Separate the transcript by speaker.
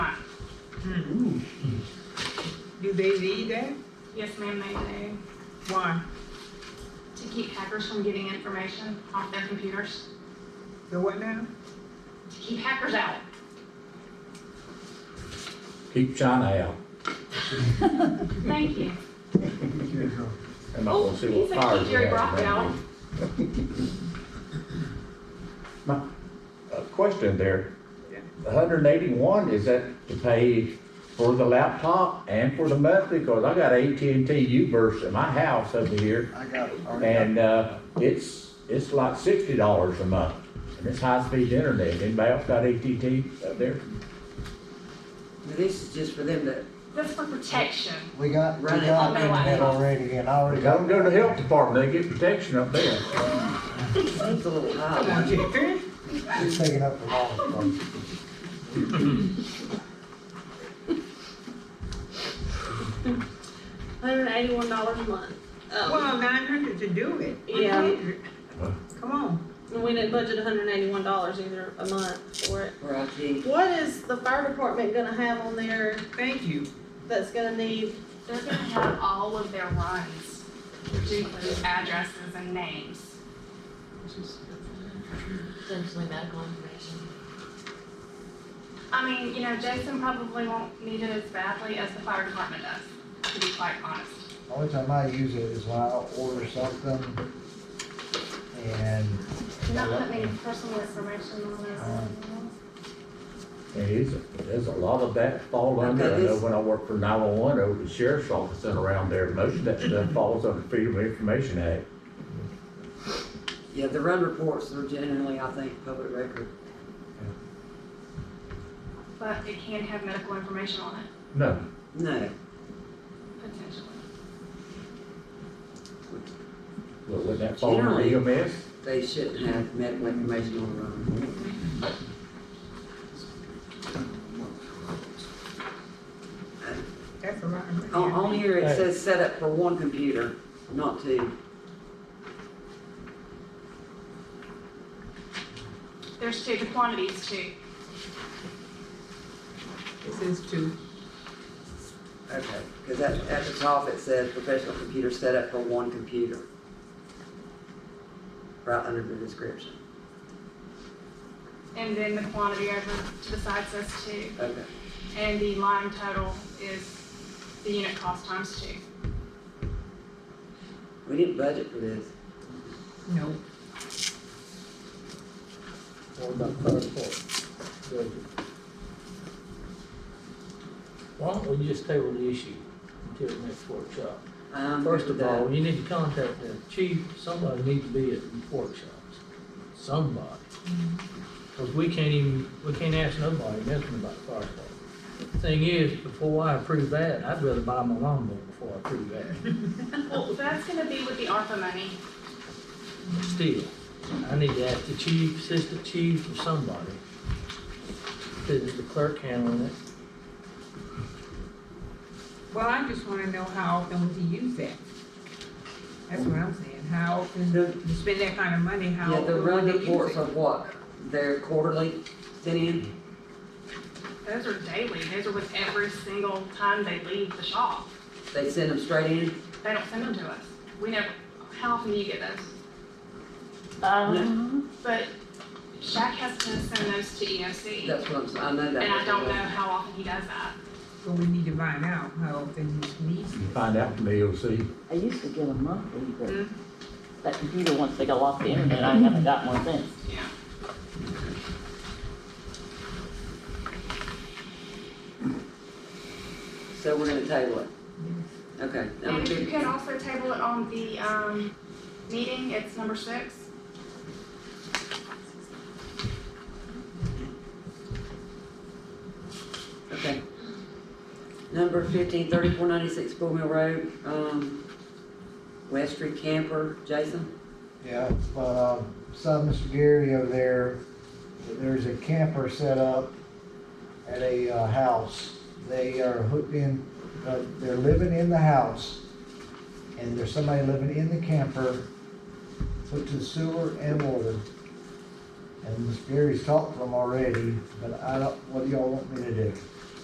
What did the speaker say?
Speaker 1: Do they need that?
Speaker 2: Yes, ma'am, they do.
Speaker 1: Why?
Speaker 2: To keep hackers from getting information off their computers,
Speaker 1: The what now?
Speaker 2: to keep hackers out.
Speaker 3: Keep China out.
Speaker 2: Thank you.
Speaker 3: I'm not gonna
Speaker 2: Oh,
Speaker 3: see
Speaker 2: he's
Speaker 3: what
Speaker 2: like
Speaker 3: fires
Speaker 2: Jerry
Speaker 3: we have
Speaker 2: Brock now.
Speaker 3: around here. My, uh, question there, the hundred and eighty-one, is that to pay for the laptop and for the monthly? Cause I got AT&T U-verse at my house over here
Speaker 4: I got it. already got it.
Speaker 3: and, uh, it's, it's like sixty dollars a month. And it's high-speed internet. Anybody else got AT&T up there?
Speaker 5: But This is just for them to,
Speaker 2: That's for protection.
Speaker 4: We got, we
Speaker 5: Run it.
Speaker 4: got internet already and I already got.
Speaker 3: Don't go to the health department, they get protection up there.
Speaker 5: seems a little
Speaker 1: Come
Speaker 5: high.
Speaker 1: on, Jerry.
Speaker 4: It's taking up the wrong part.
Speaker 6: Hundred eighty-one dollars a month. Um,
Speaker 1: Well, nine hundred to do it.
Speaker 6: Yeah.
Speaker 1: 100. Come on.
Speaker 6: and we didn't budget hundred eighty-one dollars either a month for it.
Speaker 5: Or I think,
Speaker 6: What is the fire department gonna have on there
Speaker 1: Thank you.
Speaker 6: that's gonna need,
Speaker 2: They're gonna have all of their runs, which includes addresses and names.
Speaker 7: Essentially medical information.
Speaker 2: I mean, you know, Jason probably won't need it as badly as the fire department does, to be quite honest.
Speaker 4: Only time I use it is when I order something and.
Speaker 2: Do not put any personal information on
Speaker 4: Um,
Speaker 2: this.
Speaker 3: And it's, there's a lot of that fall under, I know when I worked for nine-one-one over the sheriff's office and around there, most of that stuff falls under Freedom of Information Act.
Speaker 5: yeah, the run reports are generally, I think, public record.
Speaker 2: But it can have medical information on it,
Speaker 3: No,
Speaker 5: No,
Speaker 2: potentially.
Speaker 3: but wouldn't that fall under E EMS?
Speaker 5: they shouldn't have medical information on the run report.
Speaker 1: That's a lot. of
Speaker 5: On,
Speaker 1: money.
Speaker 5: on here, it says set up for one computer, not two.
Speaker 2: There's two, the quantities too.
Speaker 5: oh.
Speaker 1: This is two.
Speaker 5: Okay. Because at, at the top, it says professional computer set up for one computer. Right under the description.
Speaker 2: And then the quantity over to the side says two.
Speaker 5: Okay.
Speaker 2: And the line total is the unit cost times two.
Speaker 5: We didn't budget for this.
Speaker 1: No.
Speaker 8: What about fire department? Why don't we just table the issue until the next workshop?
Speaker 5: Um,
Speaker 8: First of
Speaker 5: the-
Speaker 8: all, you need to contact the chief, somebody needs to be at the workshops, somebody. Cause we can't even, we can't ask nobody nothing about the fire department. The Thing is, before I approve that, I'd rather buy my lawnmower before I approve that.
Speaker 2: Well, that's gonna be with the ARPA money.
Speaker 8: Still, I need to ask the chief, assistant chief, or somebody. Cause the clerk handling it.
Speaker 1: Well, I just wanna know how often we use that. That's what I'm saying. How often
Speaker 5: The-
Speaker 1: you spend that kind of money, how
Speaker 5: Yeah, the
Speaker 1: often
Speaker 5: run
Speaker 1: would they use
Speaker 5: reports
Speaker 1: it?
Speaker 5: of what, they're quarterly sent in?
Speaker 2: Those are daily, those are with every single time they leave the shop.
Speaker 5: They send them straight in?
Speaker 2: They don't send them to us. We never, how often do you get those? Uh-huh.
Speaker 5: Um,
Speaker 2: But Shaq has to send those to EOC,
Speaker 5: That's what I'm saying, I know that.
Speaker 2: and I don't know how often he does that.
Speaker 1: So we need to find out how often you need
Speaker 3: You Find out from the E EOC.
Speaker 9: I used to get a monthly,
Speaker 1: Mm.
Speaker 9: but that computer, once they go off the internet, I haven't got one since.
Speaker 2: Yeah.
Speaker 5: So we're gonna table it? Okay. that would
Speaker 2: And you
Speaker 5: be-
Speaker 2: can also table it on the, um, meeting, it's number six.
Speaker 5: Okay. Number fifteen, thirty-four ninety-six Bull Mill Road, um, West Street Camper, Jason?
Speaker 4: Yeah, but, um, saw Mr. Gary over there, that there's a camper set up at a, uh, house. They are hooked in, uh, they're living in the house, and there's somebody living in the camper, hooked to sewer and water. And Mr. Gary's talked to them already, but I don't, what do y'all want me to do?